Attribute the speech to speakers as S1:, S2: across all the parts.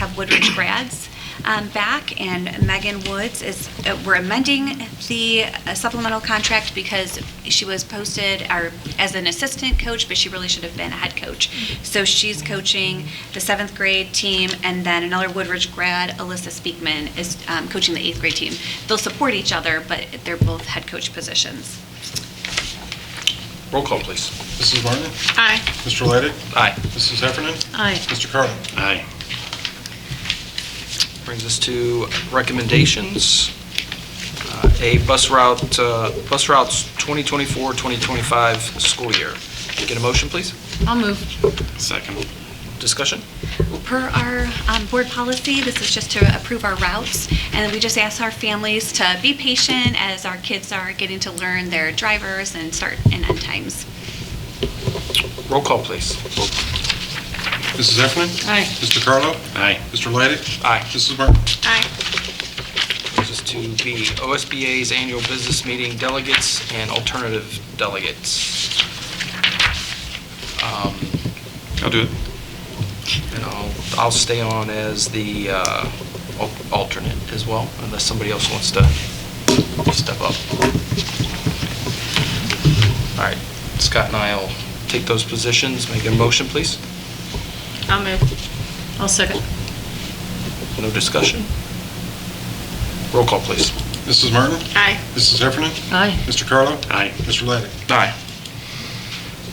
S1: have Woodridge grads um, back, and Megan Woods is, uh, we're amending the uh, supplemental contract because she was posted our- as an assistant coach, but she really should have been a head coach. So she's coaching the seventh grade team, and then another Woodridge grad, Alyssa Speakman, is um, coaching the eighth grade team. They'll support each other, but they're both head coach positions.
S2: Roll call, please.
S3: Mrs. Martin?
S4: Aye.
S3: Mr. Laydick?
S2: Aye.
S3: Mrs. Heffernan,
S4: Aye.
S3: Mr. Carlin?
S2: Aye. Brings us to recommendations. Uh, A bus route, uh, bus routes 2024-2025 school year. Get a motion, please?
S4: I'll move.
S2: Second. Discussion?
S1: Per our um, board policy, this is just to approve our routes, and we just ask our families to be patient as our kids are getting to learn their drivers and start and end times.
S2: Roll call, please.
S3: Mrs. Heffernan,
S4: Aye.
S3: Mr. Carlo?
S2: Aye.
S3: Mr. Laydick?
S2: Aye.
S3: Mrs. Martin?
S4: Aye.
S2: Brings us to B, OSBA's annual business meeting delegates and alternative delegates. Um,
S3: I'll do it.
S2: And I'll, I'll stay on as the uh, al- alternate as well, unless somebody else wants to step up. All right, Scott and I will take those positions, make a motion, please.
S4: I'll move. I'll second.
S2: No discussion. Roll call, please.
S3: Mrs. Martin?
S4: Aye.
S3: Mrs. Heffernan,
S4: Aye.
S3: Mr. Carlo?
S2: Aye.
S3: Mr. Laydick?
S2: Aye.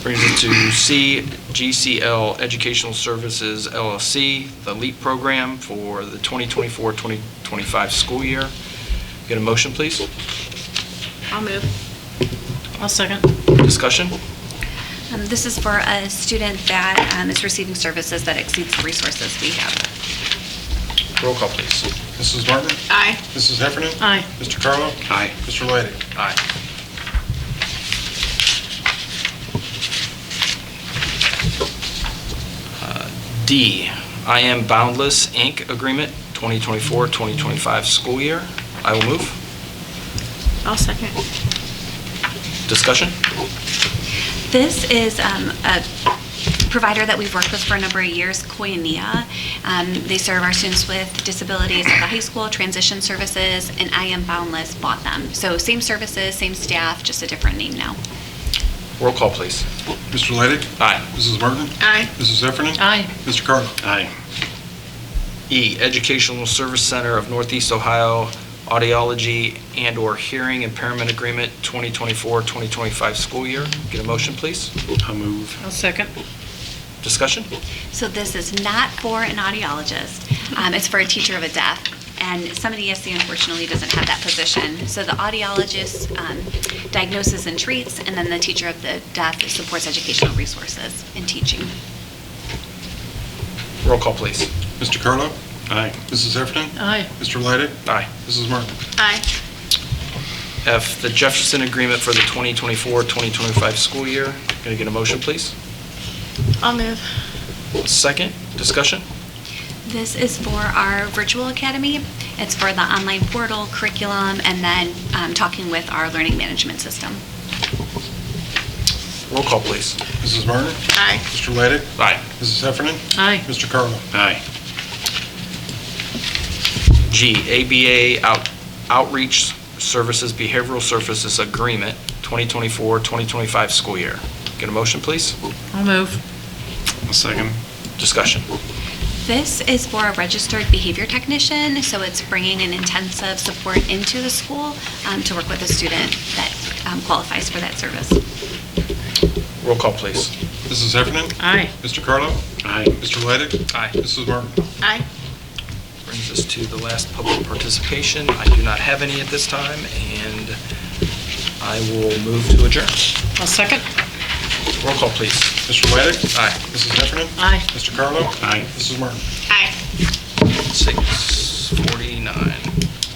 S2: Brings it to C, GCL Educational Services LLC, the LEAP program for the 2024-2025 school year. Get a motion, please?
S4: I'll move. I'll second.
S2: Discussion?
S1: Um, This is for a student that um, is receiving services that exceeds the resources we have.
S2: Roll call, please.
S3: Mrs. Martin?
S4: Aye.
S3: Mrs. Heffernan,
S4: Aye.
S3: Mr. Carlo?
S2: Aye.
S3: Mr. Laydick?
S2: Aye. Uh, D, I Am Boundless, Inc. Agreement, 2024-2025 school year. I will move.
S4: I'll second.
S2: Discussion?
S1: This is um, a provider that we've worked with for a number of years, Koinonia. Um, They serve our students with disabilities at the high school, transition services, and I Am Boundless bought them. So same services, same staff, just a different name now.
S2: Roll call, please.
S3: Mr. Laydick?
S2: Aye.
S3: Mrs. Martin?
S4: Aye.
S3: Mrs. Heffernan,
S4: Aye.
S3: Mr. Carlo?
S2: Aye. E, Educational Service Center of Northeast Ohio Audiology and/or Hearing Impairment Agreement, 2024-2025 school year. Get a motion, please. I'll move.
S4: I'll second.
S2: Discussion?
S1: So this is not for an audiologist. Um, it's for a teacher of a deaf. And some of the ESC unfortunately doesn't have that position. So the audiologist um, diagnoses and treats, and then the teacher of the deaf supports educational resources and teaching.
S2: Roll call, please.
S3: Mr. Carlo?
S2: Aye.
S3: Mrs. Heffernan,
S4: Aye.
S3: Mr. Laydick?
S2: Aye.
S3: Mrs. Martin?
S4: Aye.
S2: F, the Jefferson Agreement for the 2024-2025 school year. Going to get a motion, please?
S4: I'll move.
S2: Second, discussion?
S1: This is for our virtual academy. It's for the online portal, curriculum, and then um, talking with our learning management system.
S2: Roll call, please.
S3: Mrs. Martin?
S4: Aye.
S3: Mr. Laydick?
S2: Aye.
S3: Mrs. Heffernan,
S4: Aye.
S3: Mr. Carlo?
S2: Aye. G, ABA Out- Outreach Services Behavioral Services Agreement, 2024-2025 school year. Get a motion, please?
S4: I'll move.
S2: Second. Discussion?
S1: This is for a registered behavior technician, so it's bringing an intensive support into the school um, to work with a student that um, qualifies for that service.
S2: Roll call, please.
S3: Mrs. Heffernan,
S4: Aye.
S3: Mr. Carlo?
S2: Aye.
S3: Mr. Laydick?
S2: Aye.
S3: Mrs. Martin?
S4: Aye.
S2: Brings us to the last public participation. I do not have any at this time, and I will move to adjourn.
S4: I'll second.
S2: Roll call, please.
S3: Mr. Laydick?
S2: Aye.
S3: Mrs. Heffernan,
S4: Aye.
S3: Mr. Carlo?
S2: Aye.
S3: Mrs. Martin?
S4: Aye.
S2: 649.